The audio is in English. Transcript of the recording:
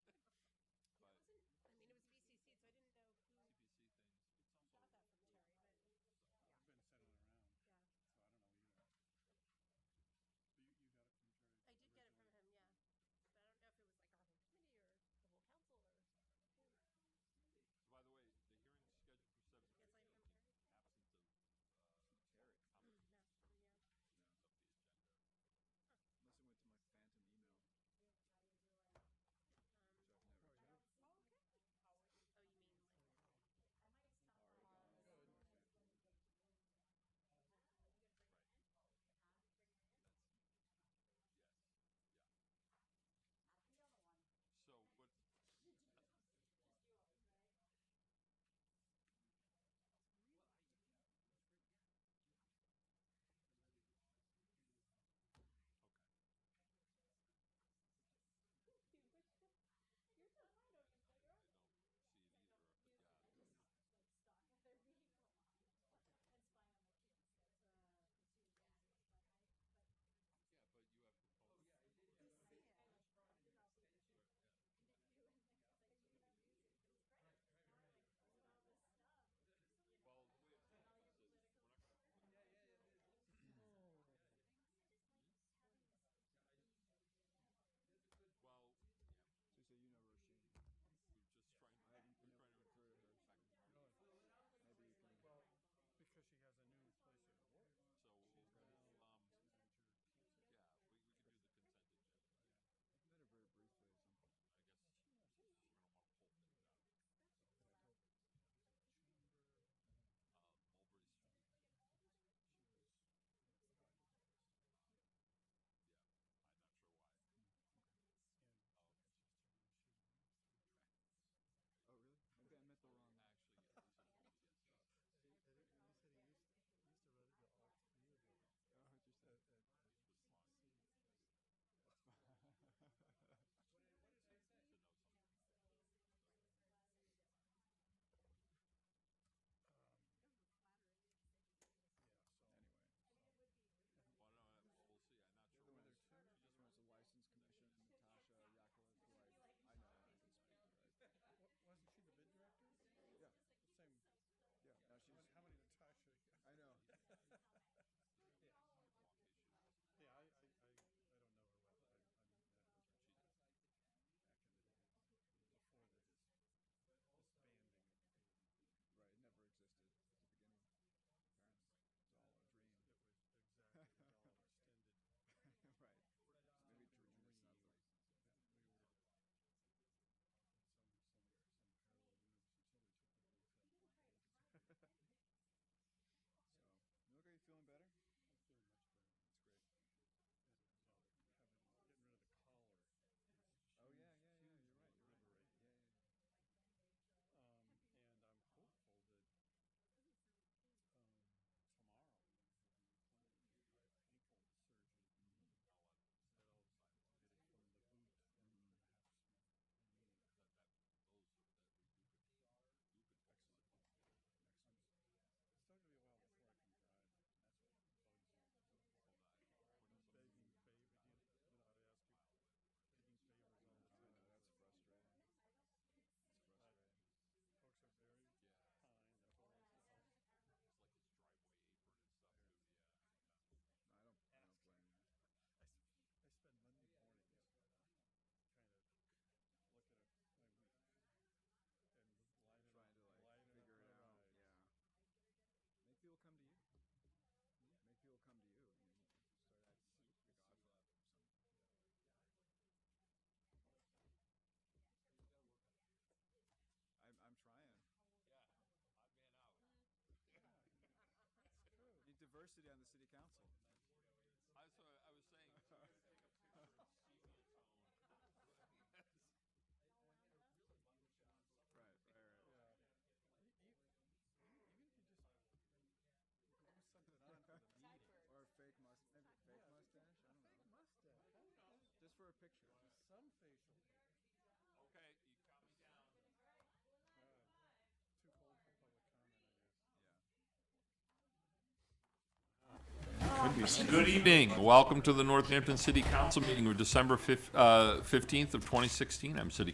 a picture, just some facial. Okay, you got me down. Too cold for public comment, I guess. Good evening. Welcome to the Northampton City Council meeting of December fif- uh, 15th of 2016. I'm City